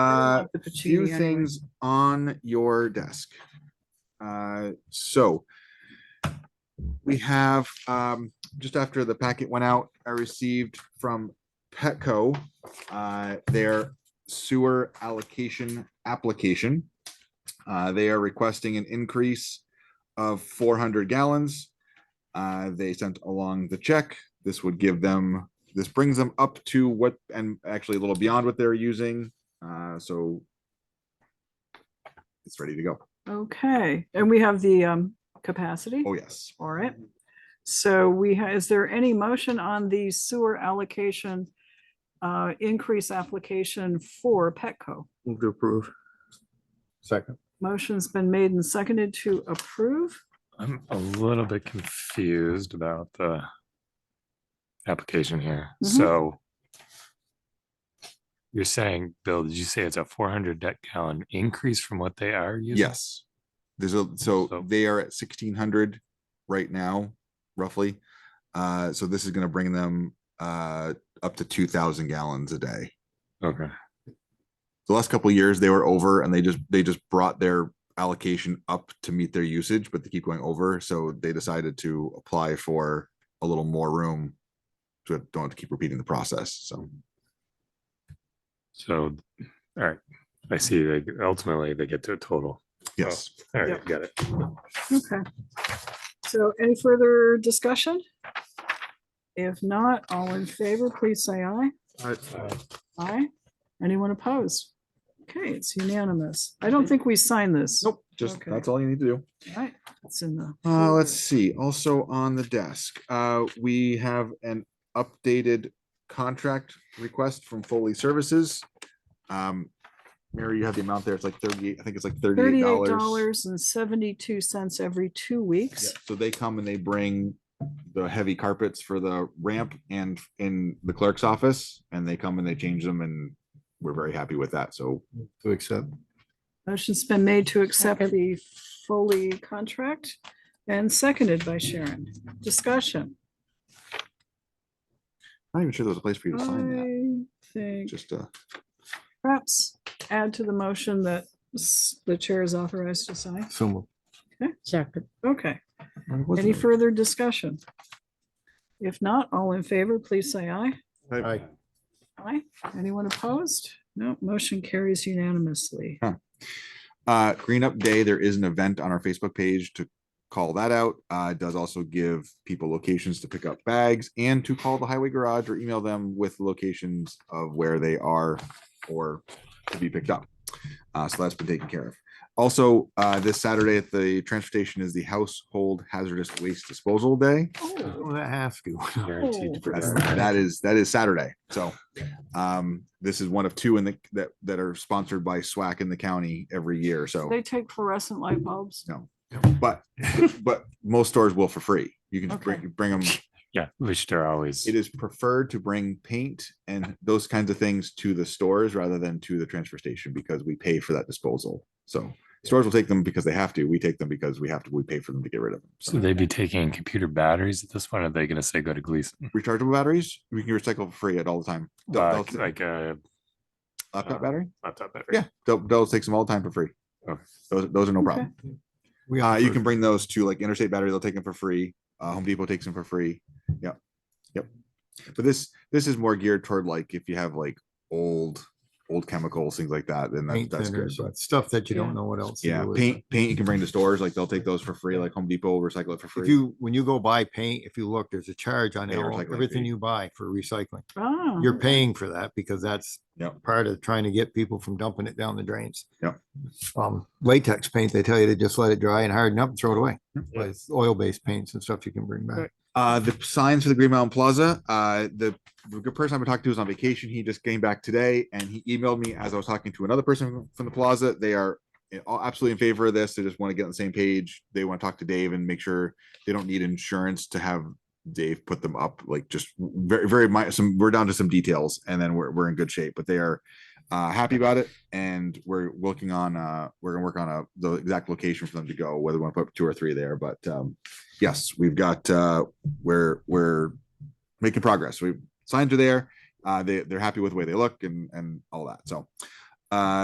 got the Uh, few patchouli anyway. things on your desk. Uh, so we have, um, just after the packet went out, I received from Petco, uh, their sewer allocation application. Uh, they are requesting an increase of four hundred gallons. Uh, they sent along the check. This would give them, this brings them up to what, and actually a little beyond what they're using. Uh, so it's ready to go. Okay, and we have the um capacity, Oh, yes. all right. So we, ha- is there any motion on the sewer allocation uh increase application for Petco? Move to approve. Second. Motion's been made and seconded to approve. I'm a little bit confused about the application here. Mhm. Mm-hmm. So you're saying, Bill, did you say it's a four hundred deck gallon increase from what they are using? Yes. There's a, so So- they are at sixteen hundred right now, roughly. Uh, so this is gonna bring them, uh, up to two thousand gallons a day. Okay, The last couple of years, they were over and they just, they just brought their allocation up to meet their usage, but they keep going over. So they decided to apply for a little more room. So I don't have to keep repeating the process, so. so, all right, I see, they ultimately they get to a total. Yes, All Yep. right, got it. Okay. So any further discussion? If not, all in favor, please say aye. Aye. Anyone opposed? Okay, it's unanimous. I don't think we signed this. nope, just, Okay. that's all you need to do. Right, it's in the. Uh, let's folder. see, also on the desk, uh, we have an updated contract request from Foley Services. Um, Mary, you have the amount there, it's like thirty, I think it's like thirty-eight Thirty-eight dollars. dollars and seventy-two cents every two weeks. So they come and they bring the heavy carpets for the ramp and in the clerk's office, and they come and they change them, and we're very happy with that, so. To accept. Motion's been made to accept the Foley contract and seconded by Sharon. Discussion. I'm not even sure there's a place for you to sign that, I think just, uh, perhaps add to the motion that s- the chair is authorized to sign. So moved. Second. Okay, where was any it? further discussion? If not, all in favor, please say aye. Uh, Aye. Aye. Anyone opposed? No, motion carries unanimously. uh green up day there is an event on our facebook page to call that out uh it does also give people locations to pick up bags and to call the highway garage or email them with locations of where they are or to be picked up uh so that's been taken care of also uh this saturday at the transportation is the household hazardous waste disposal day Oh, that has to. Guaranteed to Oh. that's, provide. that is that is Saturday. So um this is one of two in the that that are sponsored by SWAC in the county every year. So They take fluorescent light bulbs. but but most stores will for free. You can just bring bring them. Yeah, which they're always, It is preferred to bring paint and those kinds of things to the stores rather than to the transfer station because we pay for that disposal. So stores will take them because they have to. We take them because we have to. We pay for them to get rid of them. so they'd be taking computer batteries at this point, or are they gonna say go to Gleason? rechargeable batteries we can recycle for free at all the time. Del- Uh, Dell's- Like a laptop uh, battery. laptop battery? Yeah, Del- Dell's takes them all the time for free. Okay. Those those are no Okay. problem. We Uh, you can bring those to like Interstate Battery, they'll take them for free. Uh, Home Depot takes them for free. Yep. Yep. But this, this is more geared toward like if you have like old, old chemicals, things like that, then that- Paint that's good. thinners, but- stuff that you Yeah. don't know what else. to Yeah, do with. paint, paint you can bring to stores, like they'll take those for free, like Home Depot will recycle it for If free. you, when you go buy paint, if you look, there's a charge on Pay your all- recycling everything fee. you buy for recycling. Ah, You're paying for that because that's Yep. part of trying to get people from dumping it down the drains. Yep. Um, latex paint, they tell you to just let it dry and harden up and throw it away. But it's oil-based paints and stuff you can bring back. Right. Uh, the signs for the Green Mountain Plaza, uh, the the good person I've been talking to is on vacation. He just came back today and he emailed me as I was talking to another person from the plaza. They are in- all absolutely in favor of this. They just want to get on the same page. They want to talk to Dave and make sure they don't need insurance to have Dave put them up. Like just very, very mi- some, we're down to some details and then we're, we're in good shape, but they are uh, happy about it. And we're working on, uh, we're gonna work on a, the exact location for them to go, whether we want to put up two or three there, but, um, yes, we've got, uh, we're, we're making progress. We, signs are there. Uh, they, they're happy with the way they look and, and all that. So, uh,